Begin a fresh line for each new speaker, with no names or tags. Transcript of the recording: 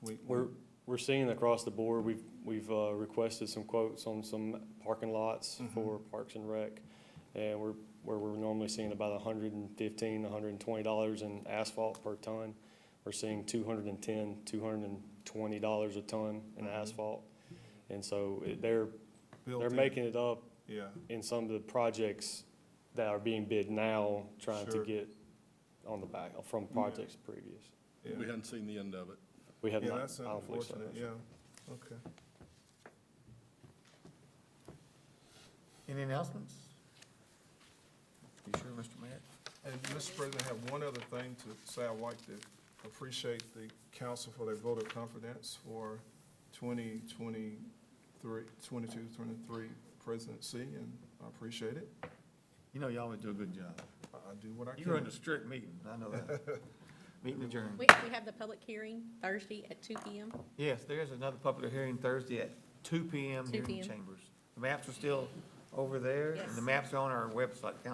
We,
We're, we're seeing across the board, we've, we've uh, requested some quotes on some parking lots
Mhm.
for Parks and Rec. And we're, where we're normally seeing about hundred and fifteen, hundred and twenty dollars in asphalt per ton. We're seeing two hundred and ten, two hundred and twenty dollars a ton in
Mhm.
asphalt. And so it- they're,
built
they're
in.
making it up
Yeah,
in some of the projects that are being bid now, trying to
Sure.
get on the back, from projects previous.
yeah.
We hadn't seen the end of it.
We have
Yeah,
not,
that's
I don't believe so.
unfortunate, yeah, okay.
Any announcements? You sure, Mr. Mayor?
And Mr. President, I have one other thing to say. I'd like to appreciate the council for their vote of confidence for 2023, 22, 23 presidency, and I appreciate it.
You know you always do a good job.
I I do what I
You're in
can.
a strict meeting, I know that. Meeting adjourned.
We, we have the public hearing Thursday at two P M.
Yes, there is another public hearing Thursday at two PM here
2
in
p.m.
Chambers. The maps are still over there, and
Yes.
the maps are on our website,